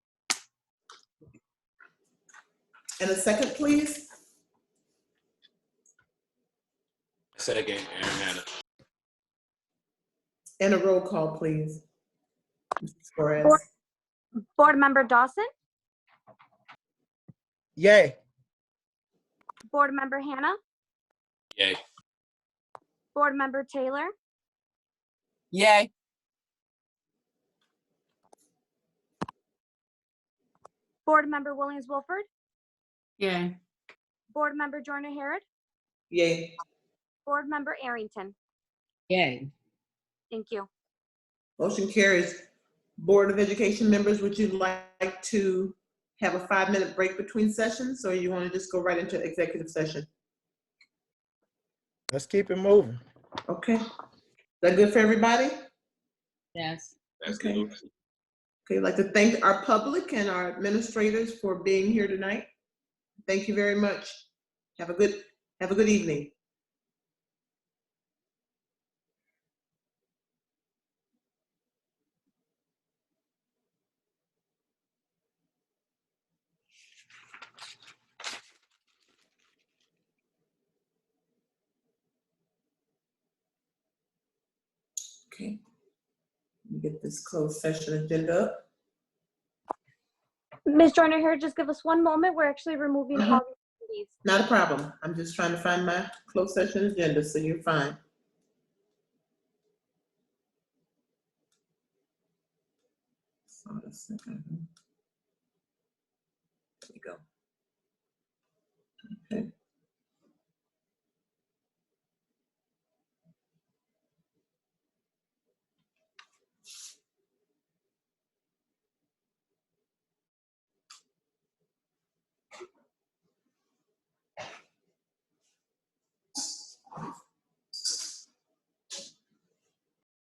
And a second, please. Second, Aaron Hannah. And a roll call, please. Mrs. Torres. Board Member Dawson, Yay. Board Member Hannah, Yay. Board Member Taylor, Yay. Board Member Williams Wilford, Yay. Board Member Joyner Harrod, Yay. Board Member Arrington. Yay. Thank you. Motion carries. Board of Education members, would you like to have a five-minute break between sessions, or you want to just go right into executive session? Let's keep it moving. Okay. Is that good for everybody? Yes. That's Okay. good. Okay, I'd like to thank our public and our administrators for being here tonight. Thank you very much. Have a good, have a good evening. Okay. Let me Get this closed session agenda up. Ms. Joyner Harrod, just give us one moment. We're actually removing Uh-huh. all these. Not a problem. I'm just trying to find my closed session agenda, so you're fine. So the second- There we go.